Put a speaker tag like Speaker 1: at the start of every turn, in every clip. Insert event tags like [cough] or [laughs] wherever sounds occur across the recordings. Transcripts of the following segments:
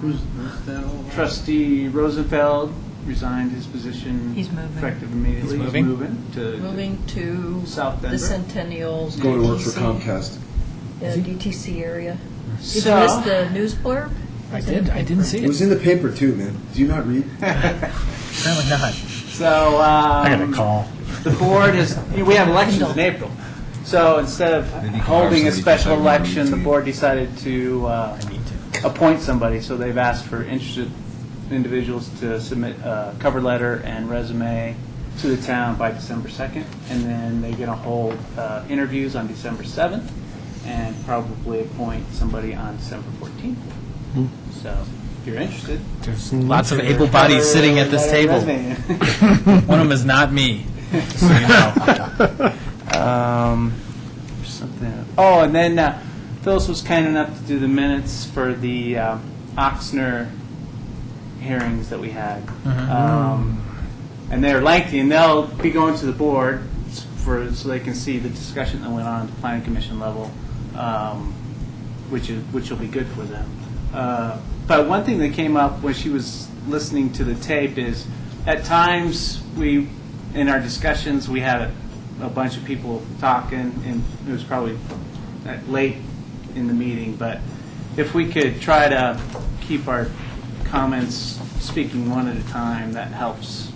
Speaker 1: Who's, what's that all about?
Speaker 2: Trustee Rosenfeld resigned his position.
Speaker 3: He's moving.
Speaker 2: Effective immediately.
Speaker 4: He's moving?
Speaker 2: to-
Speaker 3: Moving to
Speaker 2: South Denver.
Speaker 3: the Centennial.
Speaker 5: He's going to work for
Speaker 3: DTC
Speaker 5: Comcast.
Speaker 3: Yeah, DTC area. Did you
Speaker 2: So-
Speaker 3: miss the news blurb?
Speaker 4: I did, I didn't see
Speaker 5: It was
Speaker 4: it.
Speaker 5: in the paper too, man. Do you not read?
Speaker 4: Apparently not.
Speaker 2: So,
Speaker 4: I got a
Speaker 2: um,
Speaker 4: call.
Speaker 2: the board is, you know, we have elections in April. So instead of
Speaker 6: he can
Speaker 2: holding a
Speaker 6: obviously
Speaker 2: special
Speaker 6: decide not to
Speaker 2: election, the
Speaker 6: meet.
Speaker 2: board decided to uh,
Speaker 4: I need to.
Speaker 2: appoint somebody. So they've asked for interested individuals to submit a cover letter and resume to the town by December 2nd. And then they're going to hold uh, interviews on December 7th and probably appoint somebody on December 14th. So if you're interested.
Speaker 4: There's lots of Hmm. able bodies sitting at this table.
Speaker 2: [laughs]
Speaker 4: One of them is not me, just so you know.
Speaker 2: Um, there's something. Oh, and then uh, Phyllis was kind enough to do the minutes for the um, Oxner hearings that we had, um, and they're lengthy, and they'll be going to the board s- for so they can see the discussion that went on at the planning commission level, um, which is which will be good for them. Uh, but one thing that came up when she was listening to the tape is, at times we, in our discussions, we had a a bunch of people talking, and it was probably at- late in the meeting, but if we could try to keep our comments speaking one at a time, that helps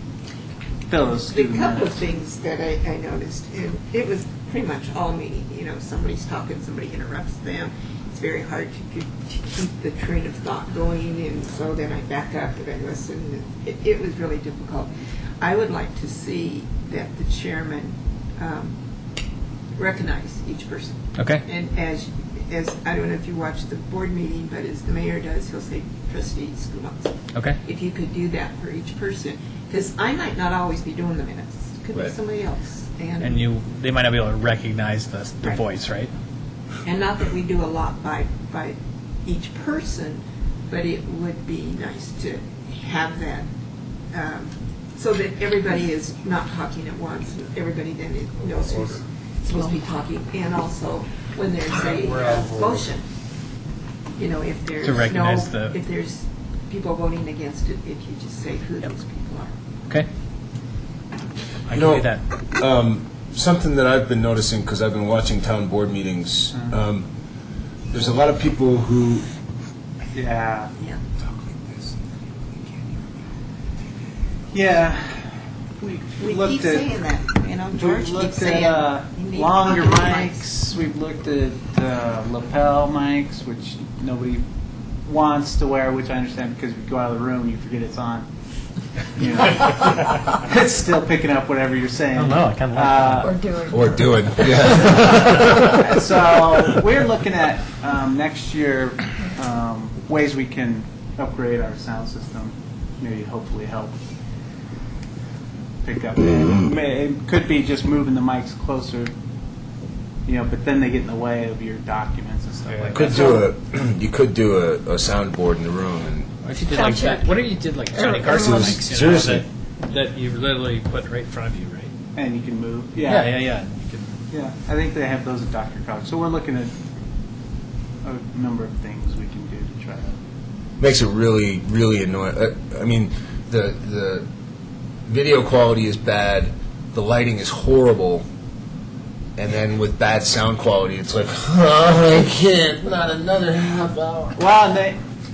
Speaker 2: fill us through
Speaker 7: The
Speaker 2: the
Speaker 7: couple of
Speaker 2: minutes.
Speaker 7: things that I, I noticed, and it was pretty much all meeting, you know, somebody's talking, somebody interrupts them. It's very hard to, to keep the train of thought going, and so then I back up and I listen. It, it was really difficult. I would like to see that the chairman, um, recognize each person.
Speaker 4: Okay.
Speaker 7: And as, as, I don't know if you watched the board meeting, but as the mayor does, he'll say trustee Schumacher
Speaker 4: Okay.
Speaker 7: if you could do that for each person, because I might not always be doing the minutes. Could be
Speaker 6: Right.
Speaker 7: somebody else, and
Speaker 4: And you, they might not be able to recognize the, the
Speaker 7: Right.
Speaker 4: voice, right?
Speaker 7: and not that we do a lot by by each person, but it would be nice to have that um, so that everybody is not talking at once. and Everybody then is- knows who's supposed to be talking, and also when there's a uh, motion, you know, if there's
Speaker 4: To recognize
Speaker 7: no,
Speaker 4: the-
Speaker 7: if there's people voting against it, if you just say who those people are.
Speaker 4: Okay. I can
Speaker 6: No.
Speaker 4: do that.
Speaker 6: Um, something that I've been noticing because I've been watching town board meetings.
Speaker 5: Mm-hmm.
Speaker 6: Um, there's a lot of people who
Speaker 2: Yeah,
Speaker 7: Yeah.
Speaker 6: talk like this.
Speaker 2: yeah. We
Speaker 7: We keep
Speaker 2: looked
Speaker 7: saying
Speaker 2: at,
Speaker 7: that, you know, George
Speaker 2: we've
Speaker 7: keeps
Speaker 2: looked
Speaker 7: saying.
Speaker 2: at uh,
Speaker 7: you need
Speaker 2: longer
Speaker 7: pocket
Speaker 2: mics, we've looked at uh, lapel mics, which nobody wants to wear, which I understand because if you go out of the room, you forget it's on. You know, [laughs]
Speaker 4: [laughs]
Speaker 2: It's still picking up whatever you're saying.
Speaker 4: I don't know, I kinda like
Speaker 2: Uh,
Speaker 3: Or doing?
Speaker 6: Or do it. [laughs] Yeah.
Speaker 2: so we're looking at um, next year um, ways we can upgrade our sound system. Maybe hopefully help pick up. May, it could be just moving the mics closer, you know. But then they get in the way of your documents and stuff like
Speaker 6: Could
Speaker 2: that.
Speaker 6: do a [clears throat] you could do a, a soundboard in the room and
Speaker 4: What if you did
Speaker 3: Sound
Speaker 4: like
Speaker 3: check.
Speaker 4: that? What if you did like
Speaker 3: Everyone-
Speaker 4: Johnny Carson
Speaker 3: everyone-
Speaker 4: mics? you know,
Speaker 6: Seriously.
Speaker 4: that- That you literally put right in front of you, right?
Speaker 2: and you can move.
Speaker 4: Yeah, yeah,
Speaker 2: yeah,
Speaker 4: yeah. You can-
Speaker 2: yeah. I think they have those at Dr. Cog. So we're looking at a number of things we can do to try to
Speaker 6: makes it really really annoying. Uh, I mean, the the video quality is bad, the lighting is horrible, and then with bad sound quality, it's like [laughs] I can't. Not another half hour.
Speaker 2: Well, and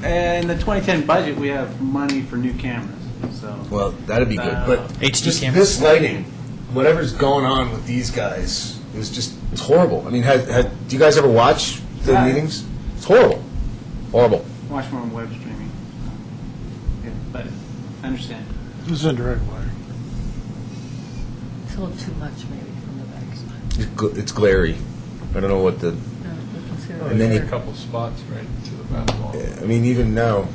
Speaker 2: they, in the 2010 budget, we have money for new cameras, so.
Speaker 6: Well, that'd be good, but
Speaker 4: HD
Speaker 6: just
Speaker 4: camera.
Speaker 6: this lighting, whatever's going on with these guys is just it's horrible. I mean, had, had, do you guys ever watch the
Speaker 2: Yeah.
Speaker 6: meetings? It's horrible, horrible.
Speaker 2: Watch more on web streaming. Yeah, But I understand.
Speaker 1: It was indirect wire.
Speaker 3: It's a little too much maybe from the backside.
Speaker 6: It's, gl- it's glary. I don't know what the.
Speaker 3: No,
Speaker 8: Oh,
Speaker 3: we can see it
Speaker 6: And then
Speaker 3: right
Speaker 6: you-
Speaker 8: a
Speaker 3: there.
Speaker 8: couple spots right to the back wall.
Speaker 6: I mean, even now,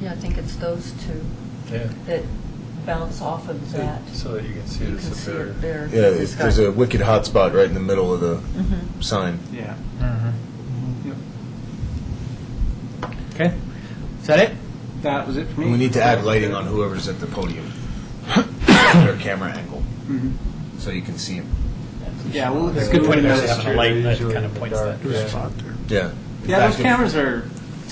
Speaker 3: Yeah, I think it's those two
Speaker 8: Yeah.
Speaker 3: that bounce off of that.
Speaker 8: So that you can see
Speaker 3: You
Speaker 8: the
Speaker 3: can see
Speaker 8: superior.
Speaker 3: it there. Mm-hmm.
Speaker 6: Yeah, it's,
Speaker 3: It's got-
Speaker 6: there's a wicked hot spot right in the middle of the sign.
Speaker 2: Yeah.
Speaker 4: Mm-hmm. Okay. Is that it?
Speaker 2: That was it for
Speaker 6: And we
Speaker 2: me.
Speaker 6: need to add lighting on whoever's at the podium, [coughs] their camera angle,
Speaker 2: Mhm.
Speaker 6: so you can see them.
Speaker 2: Yeah, well,
Speaker 4: That's
Speaker 2: it's
Speaker 4: a good
Speaker 2: good
Speaker 4: point
Speaker 2: to
Speaker 4: about
Speaker 2: notice.
Speaker 4: having a light that kind of points that.
Speaker 1: There's a spot there.
Speaker 6: Yeah.
Speaker 2: Yeah, those cameras are